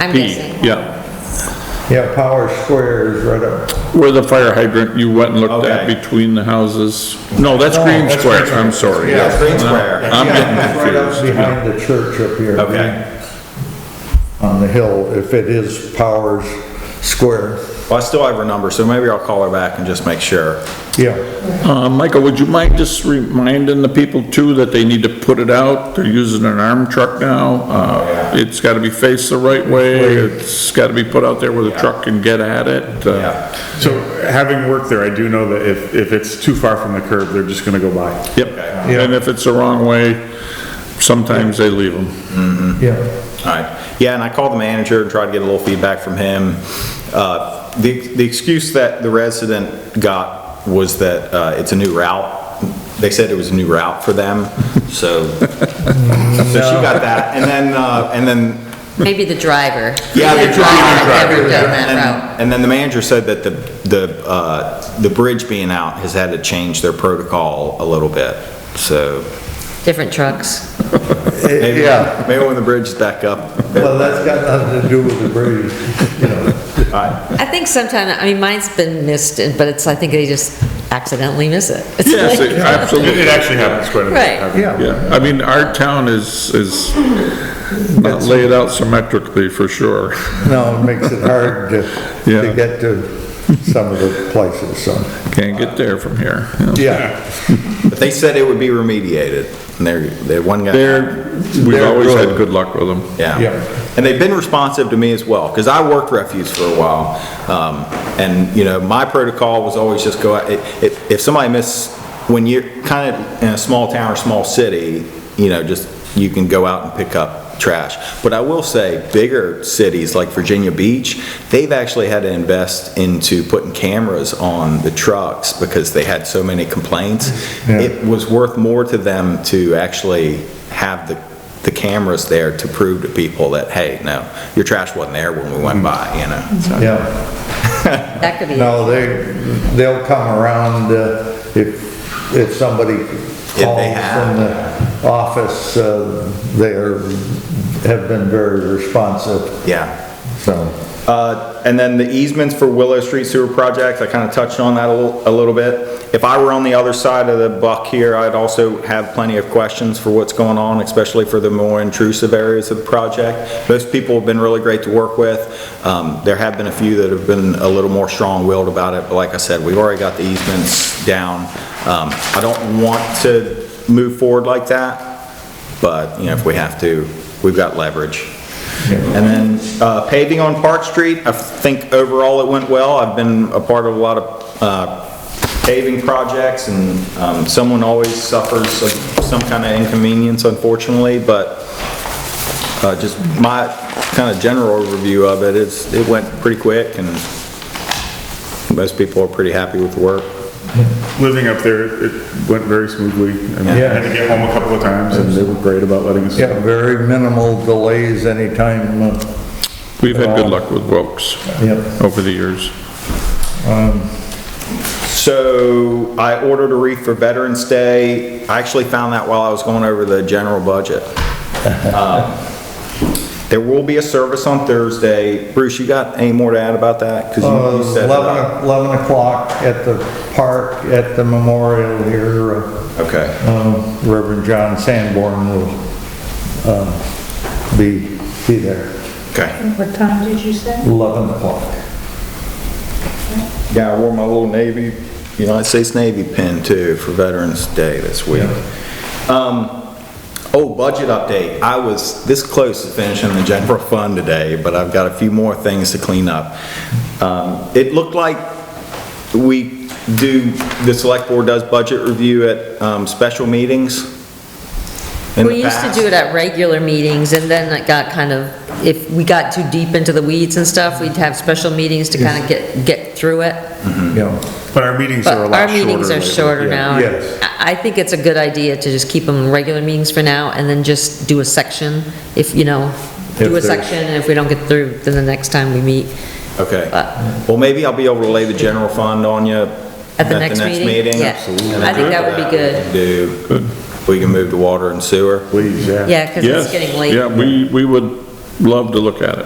I'm P, guessing. yeah. Yeah, Power Square is right up. Where the fire hydrant you went and looked at Okay. between the houses. No, that's Green that's Square, Green Square. I'm sorry. Yeah, yes. Green Square. I'm Yeah, getting Right up confused. yeah. behind the church up here. Okay. On the hill, if it is Powers Square, Well, I still have her number, so maybe I'll call her back and just make sure. yeah. Uh, Michael, would you mind just reminding the people too that they need to put it out? They're using an arm truck now. Uh, It's gotta be faced the right way. It's gotta be put out there where the truck can get at it. uh, Yeah, So having worked there, I do know that if, if it's too far from the curb, they're just gonna go by. Yep. Yeah. And if it's the wrong way, sometimes they leave them. Yeah. all right. Yeah, and I called the manager and tried to get a little feedback from him. Uh, The the excuse that the resident got was that uh, it's a new route. They said it was a new route for them, so so she got that. And then, uh, and then Maybe the driver. Yeah, the I've driver. Never done that And- route. And then the manager said that the, the, uh, the bridge being out has had to change their protocol a little bit, so. Different trucks. maybe- Yeah. Maybe when the bridge is back up. Well, that's got nothing to do with the bridge, you know. I think sometimes, I mean, mine's been missed, and- but it's, I think they just accidentally miss it. It's Yes, like- it- It it absolutely. actually happens quite a Right. bit. Yeah. Yeah, I mean, our town is, is not laid out symmetrically for sure. No, it makes it hard to, Yeah. to get to some of the places, so, Can't get there from here. you know. yeah. But they said it would be remediated, and they're, they one guy. They're, we've They're always had good. good luck with them. Yeah. Yeah. And they've been responsive to me as well, because I worked refuse for a while. Um, And, you know, my protocol was always just go, out- if, if- if somebody miss, when you're kind of in a small town or small city, you know, just, you can go out and pick up trash. But I will say, bigger cities like Virginia Beach, they've actually had to invest into putting cameras on the trucks because they had so many complaints. Yeah. It was worth more to them to actually have the the cameras there to prove to people that, hey, no, your trash wasn't there when we went by, you know? so. Yeah. That could be. No, they, they'll come around uh, if, if somebody they calls have. from the office, uh, they are, have been very responsive, Yeah. so. Uh, And then the easements for Willow Street Sewer Project, I kind of touched on that a little, a little bit. If I were on the other side of the buck here, I'd also have plenty of questions for what's going on, especially for the more intrusive areas of the project. Most people have been really great to work with. Um, There have been a few that have been a little more strong-willed about it, but like I said, we've already got the easements down. Um, I don't want to move forward like that, but, you know, if we have to, we've got leverage. And then uh, paving on Park Street, I think overall it went well. I've been a part of a lot of uh, paving projects, and um, someone always suffers some- some kind of inconvenience unfortunately, but uh, just my kind of general overview of it is, it went pretty quick, and most people are pretty happy with the work. Living up there, it went very smoothly. I mean, I had to get home a couple of times and they were great about letting us. Yeah, very minimal delays anytime, uh, We've had good luck with Wilkes yeah. over the years. So I ordered a wreath for Veterans Day. I actually found that while I was going over the general budget. Um, There will be a service on Thursday. Bruce, you got any more to add about that? 'Cause you- Uh, uh, you set it up. 11, 11 o'clock at the park, at the memorial here, uh, Okay, uh, Reverend John Sanborn will uh, be, be there, okay. What time did you say? 11 o'clock. Yeah, I wore my little Navy, United States Navy pin too for Veterans Day this week. Um, oh, budget update. I was this close to finishing the general fund today, but I've got a few more things to clean up. Um, it looked like we do, the select board does budget review at, um, special meetings in the We used to past. do it at regular meetings, and then it got kind of, if we got too deep into the weeds and stuff, we'd have special meetings to kind of get, get through it. Mm-hmm. Yeah, But our meetings But are a lot our shorter. meetings are lately, shorter yeah. now. Yes. I I think it's a good idea to just keep them regular meetings for now, and then just do a section, if, you know, do a there's- section, and if we don't get through, then the next time we meet. Okay. Uh, Well, maybe I'll be able to lay the general fund on you. At the next meeting? Yeah. Absolutely. I think that would be good. Do, we can move to water and sewer. Please, yeah. Yeah, because Yes. it's getting late. Yeah, we, we would love to look at it.